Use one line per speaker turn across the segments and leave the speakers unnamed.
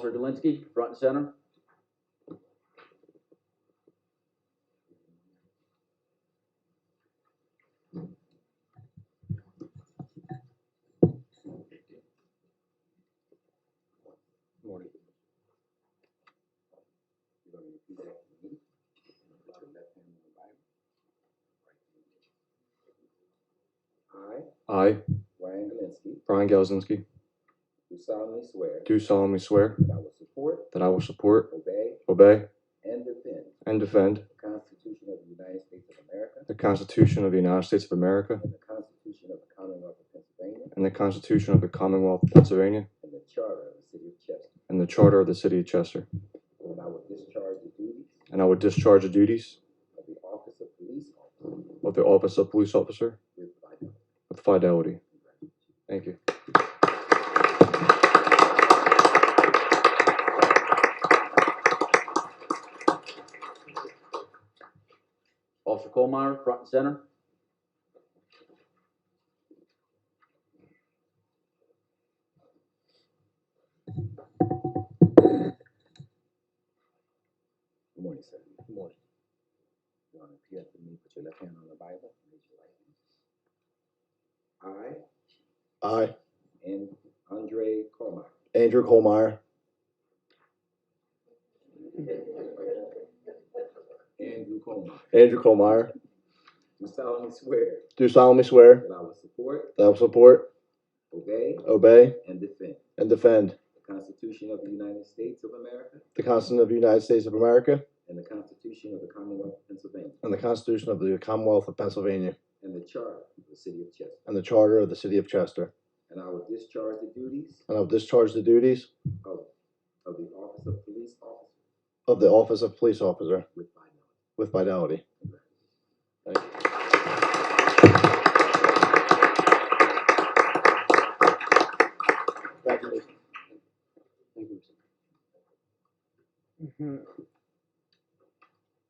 Zelinski, front and center.
Morning.
I,
I,
Ryan Galinsky,
Brian Galzinski,
do solemnly swear
do solemnly swear
that I will support,
that I will support,
obey,
obey,
and defend
and defend
the Constitution of the United States of America
the Constitution of the United States of America
and the Constitution of the Commonwealth of Pennsylvania
and the Constitution of the Commonwealth of Pennsylvania
and the Charter of the City of Chester,
and the Charter of the City of Chester,
and I will discharge the duties
and I will discharge the duties
of the office of police officer
of the office of police officer
with fidelity.
with fidelity. Thank you.
Officer Colmeyer, front and center.
Good morning, sir. Good morning. You want to repeat after me, put your left hand on the Bible, raise your right hand.
I,
I, and Andre Cormier,
Andrew Colmeyer,
Andrew Cormier,
Andrew Colmeyer,
do solemnly swear
do solemnly swear
that I will support,
that I will support,
obey,
obey,
and defend
and defend
the Constitution of the United States of America
the Constitution of the United States of America
and the Constitution of the Commonwealth of Pennsylvania
and the Constitution of the Commonwealth of Pennsylvania
and the Charter of the City of Chester.
and the Charter of the City of Chester,
And I will discharge the duties
and I will discharge the duties
of, of the Office of Police Officer
of the Office of Police Officer
with fidelity.
with fidelity. Thank you. Congratulations.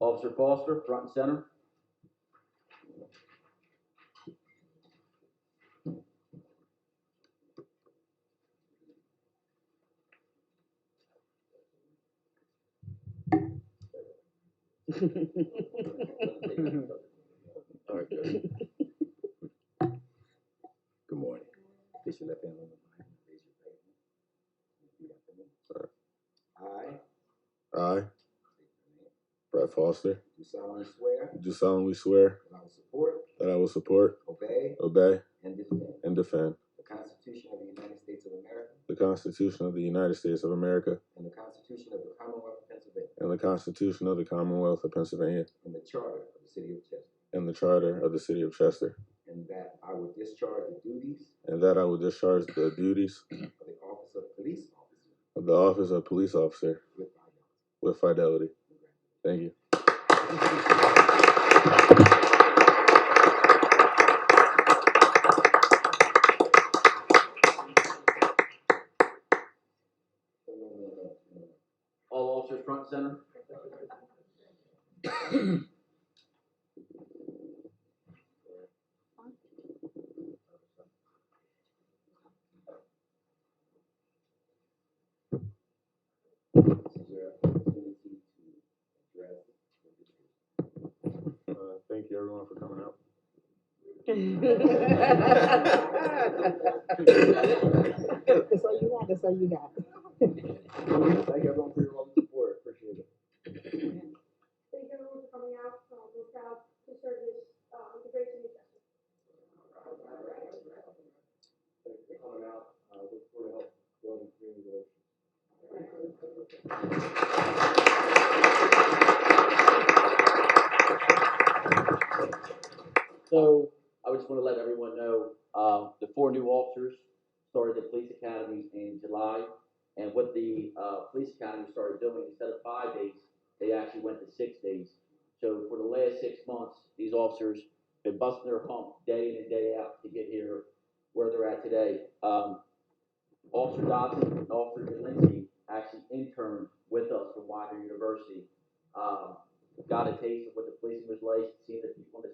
Officer Foster, front and center.
All right, good. Good morning. Place your left hand on the Bible. Raise your right hand. Repeat after me. I
I, Brett Foster,
do solemnly swear
do solemnly swear
that I will support,
that I will support,
obey,
obey,
and defend
and defend
the Constitution of the United States of America
the Constitution of the United States of America
and the Constitution of the Commonwealth of Pennsylvania
and the Constitution of the Commonwealth of Pennsylvania
and the Charter of the City of Chester,
and the Charter of the City of Chester,
and that I will discharge the duties
and that I will discharge the duties
of the Office of Police Officer
of the office of police officer
with fidelity.
with fidelity. Thank you.
All officers, front and center.
This is your opportunity to address
Uh, thank you, everyone, for coming out.
That's all you got, that's all you got.
Thank everyone for your love and support, appreciate it.
Thank everyone for coming out, um, we're proud to serve this, uh, it's a great city.
Thanks for coming out, uh, look forward to help building community relations.
So I just want to let everyone know, uh, the four new officers started the police academy in July. And what the, uh, police academy started doing, instead of five days, they actually went to six days. So for the last six months, these officers been busting their hump day in and day out to get here where they're at today. Um, Officer Dodson and Officer Delancey actually interned with us from Widener University. Um, got a taste of what the policing was like, seeing the people on the